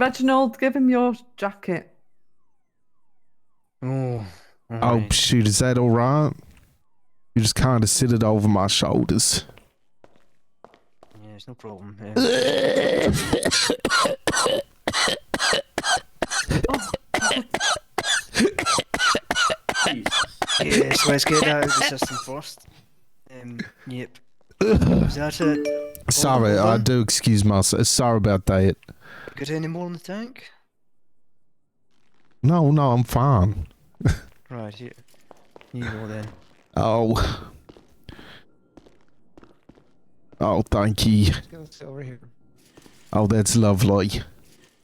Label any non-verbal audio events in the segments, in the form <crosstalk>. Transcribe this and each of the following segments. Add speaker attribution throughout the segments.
Speaker 1: Reginald, give him your jacket.
Speaker 2: Oh, all
Speaker 3: Oh
Speaker 2: right.
Speaker 3: shoot, is that all right? You just kind of sit it over my shoulders.
Speaker 2: yeah, it's no problem. Uh,
Speaker 4: Jesus.
Speaker 2: yeah, so let's get that out of the system first. Um, yep. Is that it?
Speaker 3: Sorry,
Speaker 2: hold
Speaker 3: I
Speaker 2: on.
Speaker 3: do excuse myself. Sorry about that.
Speaker 2: Got any more in the tank?
Speaker 3: No, no, I'm fine.
Speaker 2: Right here. You go then.
Speaker 3: Oh. Oh, thank you.
Speaker 2: Let's get this over here.
Speaker 3: Oh, that's lovely.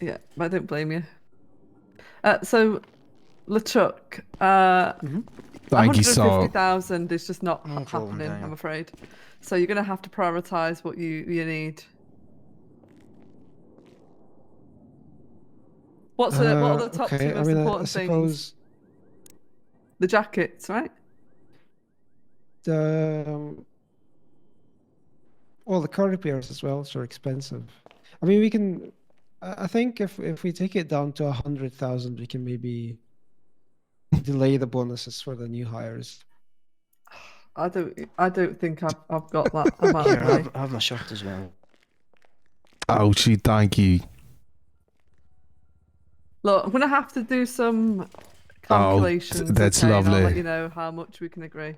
Speaker 1: Yeah, I don't blame you. Uh, so, LeChuck, uh,
Speaker 3: Thank you, sir.
Speaker 1: 150,000 is just not
Speaker 2: No
Speaker 1: ha-
Speaker 2: problem,
Speaker 1: happening,
Speaker 2: Daniel.
Speaker 1: I'm afraid. So you're going to have to prioritize what you, you need. What's the, what
Speaker 5: Uh,
Speaker 1: are the top two most important things? The jackets, right?
Speaker 5: um, well, the car repairs as well so are expensive. I mean, we can. I I think if if we take it down to a hundred thousand, we can maybe delay the bonuses for the new hires.
Speaker 1: I don't I don't think I've, I've got that amount
Speaker 2: Here,
Speaker 1: of money.
Speaker 2: have, have my shirt as well.
Speaker 3: Oh, she, thank you.
Speaker 1: Look, I'm going to have to do some
Speaker 3: Oh, th-
Speaker 1: calculations.
Speaker 3: that's
Speaker 1: okay, and I'll let
Speaker 3: lovely.
Speaker 1: you know how much we can agree.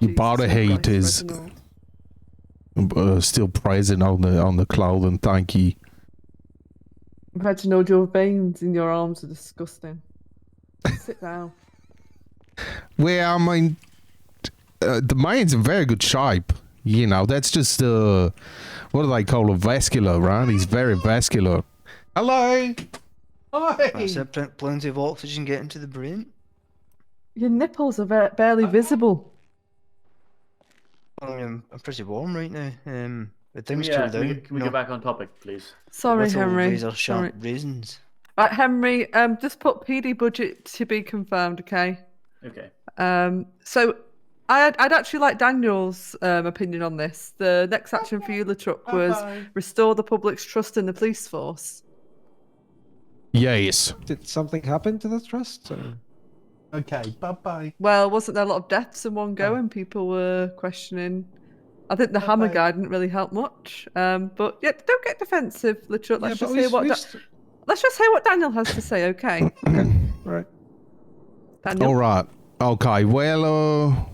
Speaker 3: You
Speaker 1: Jesus
Speaker 3: bought a
Speaker 1: Christ,
Speaker 3: haters.
Speaker 1: Reginald.
Speaker 3: Uh, still present on the on the clothing. Thank you.
Speaker 1: Reginald, your veins in your arms are
Speaker 3: <laughs>
Speaker 1: disgusting. Sit down.
Speaker 3: Well, I mean, uh, the man's in very good shape. You know, that's just uh, what do they call a vascular, right? He's very vascular. Hello.
Speaker 2: That's it. plen- Plenty of oxygen getting to the brain.
Speaker 1: Your nipples are ver- barely visible.
Speaker 2: I mean, I'm, I'm pretty warm right now. Um, but things
Speaker 4: Yeah,
Speaker 2: cool
Speaker 4: can
Speaker 2: down.
Speaker 4: we, can we
Speaker 2: No,
Speaker 4: get back on topic, please?
Speaker 1: Sorry,
Speaker 2: little
Speaker 1: Henry.
Speaker 2: Razor
Speaker 1: Sorry.
Speaker 2: sharp raisins.
Speaker 1: Right, Henry. Um, just put PD budget to be confirmed. Okay.
Speaker 4: Okay.
Speaker 1: Um, so I'd, I'd actually like Daniel's um, opinion on this. The next action for you, Latruck, was restore the public's trust in the police force.
Speaker 3: Yes.
Speaker 5: Did something happen to the trust? Or?
Speaker 3: Okay. Bye bye.
Speaker 1: Well, wasn't there a lot of deaths in one go, and people were questioning? I think the hammer guy didn't really help much. Um, but yeah, don't get defensive, Latruck. Let's just hear what Da- let's just hear what Daniel has to say.
Speaker 3: <laughs>
Speaker 1: Okay,
Speaker 5: right.
Speaker 1: Daniel.
Speaker 3: All right. Okay. Well. Uh,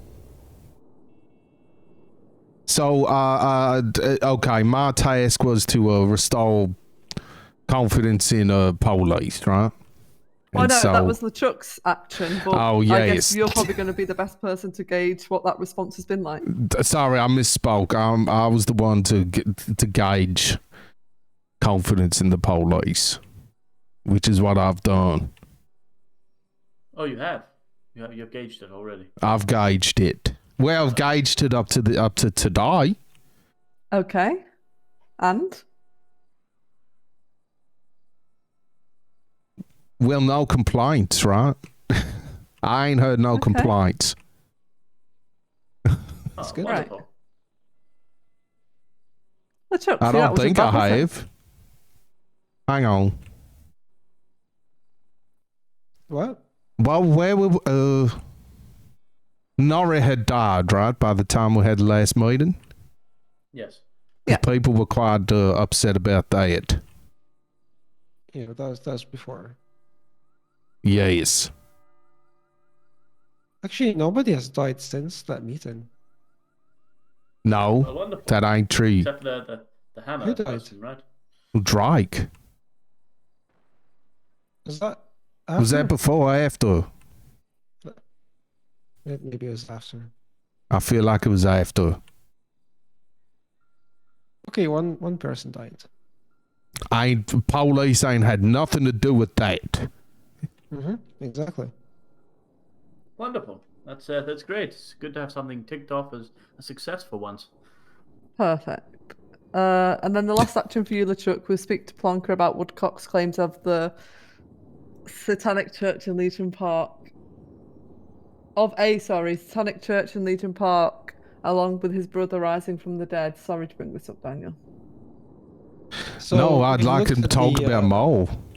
Speaker 3: so, uh, uh, d- okay, my task was to uh, restore confidence in uh, police, right?
Speaker 1: Well,
Speaker 3: And
Speaker 1: Oh, no,
Speaker 3: so-
Speaker 1: that was LeChuck's action. But
Speaker 3: Oh,
Speaker 1: I
Speaker 3: yes.
Speaker 1: guess you're probably going to be the best person to gauge what that response has been like.
Speaker 3: D- Sorry, I misspoke. Um, I was the one to g- to gauge confidence in the police, which is what I've done.
Speaker 4: Oh, you have. You have you've gauged it already.
Speaker 3: I've gauged it. Well, I've gauged it up to the up to today.
Speaker 1: Okay. And?
Speaker 3: Well, no complaints, right? <laughs> I ain't heard no
Speaker 1: Okay.
Speaker 3: complaints.
Speaker 4: That's
Speaker 5: good.
Speaker 1: Right.
Speaker 4: Ah, Wonderful.
Speaker 1: LeChuck,
Speaker 3: I
Speaker 1: see, that
Speaker 3: don't
Speaker 1: was your
Speaker 3: think I
Speaker 1: bad, wasn't it?
Speaker 3: have. Hang on.
Speaker 5: What?
Speaker 3: Well, where were uh, Nori had died, right? By the time we had the last meeting,
Speaker 4: Yes.
Speaker 1: Yeah.
Speaker 3: people were quite uh, upset about that.
Speaker 5: Yeah, that was that was before.
Speaker 3: Yes.
Speaker 5: Actually, nobody has died since that meeting.
Speaker 3: No,
Speaker 4: Well, wonderful.
Speaker 3: that ain't true.
Speaker 4: Except for the, the, the hammer
Speaker 5: Who died?
Speaker 4: person, right?
Speaker 3: Drake.
Speaker 5: Was that? Uh-huh.
Speaker 3: Was that
Speaker 5: after?
Speaker 3: before or after?
Speaker 5: Yeah, Maybe it was after.
Speaker 3: I feel like it was after.
Speaker 5: Okay, one one person died.
Speaker 3: I ain't, police ain't had nothing to do with that.
Speaker 5: Mm-hmm. Exactly.
Speaker 4: Wonderful. That's uh, that's great. It's good to have something ticked off as a success for once.
Speaker 1: Perfect. Uh, and then the last action for you, LeChuck, was speak to Plonker about Woodcock's claims of the Satanic Church in Legion Park. Of a, sorry, Satanic Church in Legion Park, along with his brother rising from the dead. Sorry to bring this up, Daniel.
Speaker 5: So
Speaker 3: no,
Speaker 5: if
Speaker 3: I'd
Speaker 5: you
Speaker 3: like
Speaker 5: looked
Speaker 3: to
Speaker 5: at
Speaker 3: talk
Speaker 5: the,
Speaker 3: about
Speaker 5: uh,
Speaker 3: more.